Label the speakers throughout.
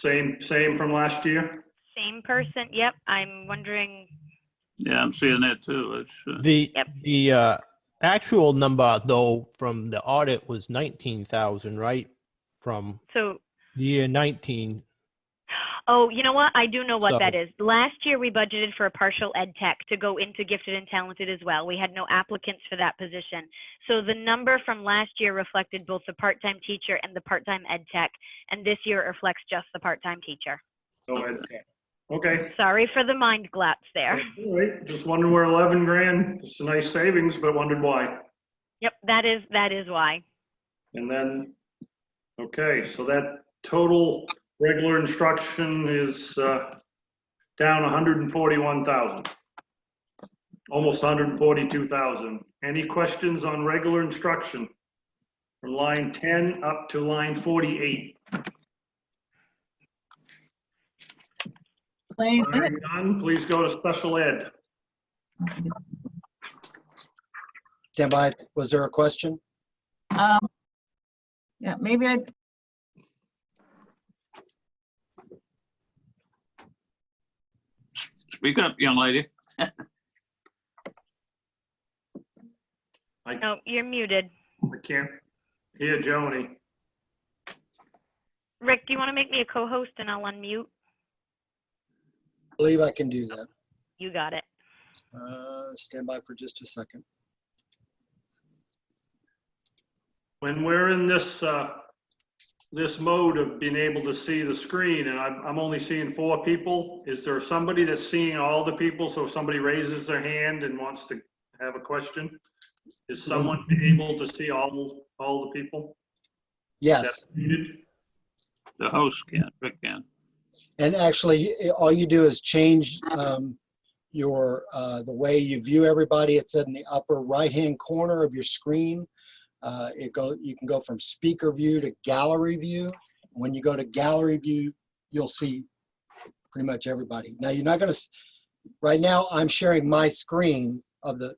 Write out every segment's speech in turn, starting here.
Speaker 1: Same, same from last year?
Speaker 2: Same person, yep, I'm wondering,
Speaker 3: Yeah, I'm seeing that too. It's, uh,
Speaker 4: The,
Speaker 2: Yep.
Speaker 4: the uh, actual number though from the audit was 19,000, right? From
Speaker 2: so,
Speaker 4: the year 19.
Speaker 2: oh, you know what, I do know what
Speaker 4: So-
Speaker 2: that is. Last year, we budgeted for a partial ed tech to go into gifted and talented as well. We had no applicants for that position. So the number from last year reflected both the part-time teacher and the part-time ed tech, and this year it reflects just the part-time teacher.
Speaker 1: No ed tech. Oh, Okay,
Speaker 2: Sorry for the mind glaps there.
Speaker 1: all right, just wondering where 11 grand, it's a nice savings, but wondered why.
Speaker 2: Yep, that is, that is why.
Speaker 1: And then, okay, so that total regular instruction is uh, down 141,000. Almost 142,000. Any questions on regular instruction? From line 10 up to line 48.
Speaker 5: Lane,
Speaker 1: Hearing none, please go to special ed.
Speaker 6: Stand by. Was there a question?
Speaker 5: um, yeah, maybe I,
Speaker 3: speak up, young lady.
Speaker 2: No, you're muted.
Speaker 1: I can't hear Joni.
Speaker 2: Rick, do you want to make me a co-host and I'll unmute?
Speaker 6: I believe I can do that.
Speaker 2: You got it.
Speaker 6: Uh, Stand by for just a second.
Speaker 1: when we're in this, uh, this mode of being able to see the screen and I'm, I'm only seeing four people, is there somebody that's seeing all the people? So if somebody raises their hand and wants to have a question, is someone able to see all, all the people?
Speaker 6: Yes.
Speaker 3: The host can, Rick can.
Speaker 6: And actually, i- all you do is change um, your, uh, the way you view everybody. It's in the upper right-hand corner of your screen. Uh, It go, you can go from speaker view to gallery view. When you go to gallery view, you'll see pretty much everybody. Now, you're not gonna, s- right now, I'm sharing my screen of the,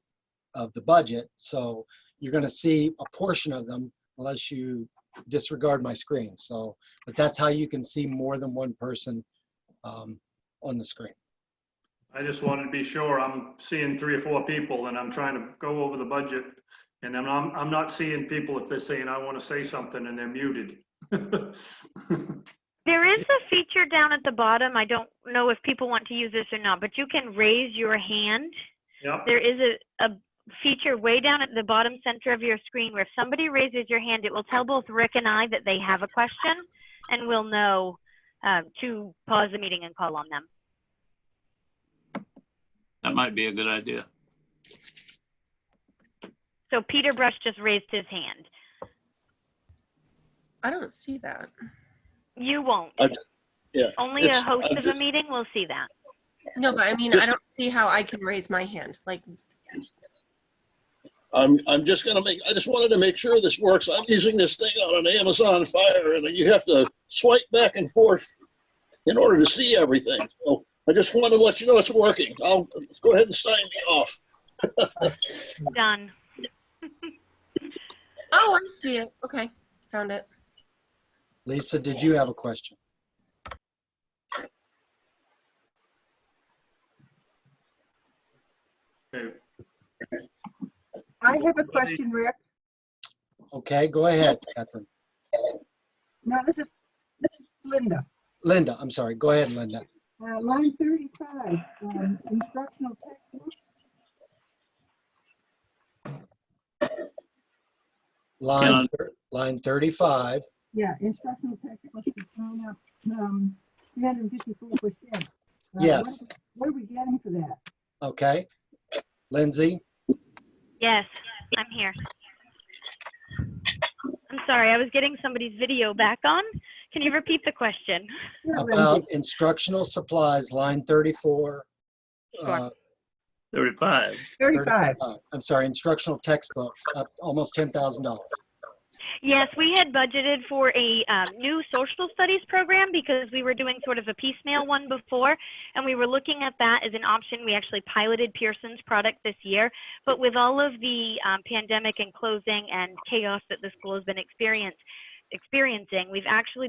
Speaker 6: of the budget. So you're gonna see a portion of them unless you disregard my screen. So but that's how you can see more than one person um, on the screen.
Speaker 1: I just wanted to be sure. I'm seeing three or four people and I'm trying to go over the budget. And I'm, I'm, I'm not seeing people if they're saying, I want to say something and they're muted.
Speaker 2: There is a feature down at the bottom. I don't know if people want to use this or not, but you can raise your hand.
Speaker 1: Yep,
Speaker 2: There is a, a feature way down at the bottom center of your screen where if somebody raises your hand, it will tell both Rick and I that they have a question and we'll know uh, to pause the meeting and call on them.
Speaker 3: That might be a good idea.
Speaker 2: So Peter Brush just raised his hand.
Speaker 7: I don't see that.
Speaker 2: You won't.
Speaker 8: I- yeah,
Speaker 2: Only a
Speaker 8: it's-
Speaker 2: host
Speaker 8: I'm
Speaker 2: of a
Speaker 8: just-
Speaker 2: meeting will see that.
Speaker 7: No, but I mean, I
Speaker 8: Just-
Speaker 7: don't see how I can raise my hand. Like,
Speaker 8: I'm, I'm just gonna make, I just wanted to make sure this works. I'm using this thing on an Amazon Fire and you have to swipe back and forth in order to see everything. So I just wanted to let you know it's working. I'll, go ahead and sign me off.
Speaker 2: Done.
Speaker 7: oh, I see it. Okay, found it.
Speaker 6: Lisa, did you have a question?
Speaker 1: okay.
Speaker 9: I have a question, Rick.
Speaker 6: Okay, go ahead, Catherine.
Speaker 9: No, this is this is Linda.
Speaker 6: Linda, I'm sorry. Go ahead, Linda.
Speaker 9: Uh, Line 35, um, instructional textbook.
Speaker 6: Line, thir- line 35.
Speaker 9: Yeah, instructional textbook is going up um, 354%. Uh, what
Speaker 6: Yes.
Speaker 9: are we- What are we getting for that?
Speaker 6: Okay. Lindsay,
Speaker 2: Yes, I'm here. I'm sorry, I was getting somebody's video back on. Can you repeat the question?
Speaker 9: Yeah, Lindsay.
Speaker 6: about instructional supplies, line 34. uh,
Speaker 3: Thirty-five.
Speaker 9: 35.
Speaker 6: I'm sorry, instructional textbooks, up almost $10,000.
Speaker 2: Yes, we had budgeted for a um, new social studies program because we were doing sort of a piecemeal one before, and we were looking at that as an option. We actually piloted Pearson's product this year, but with all of the um, pandemic and closing and chaos that the school has been experience, experiencing, we've actually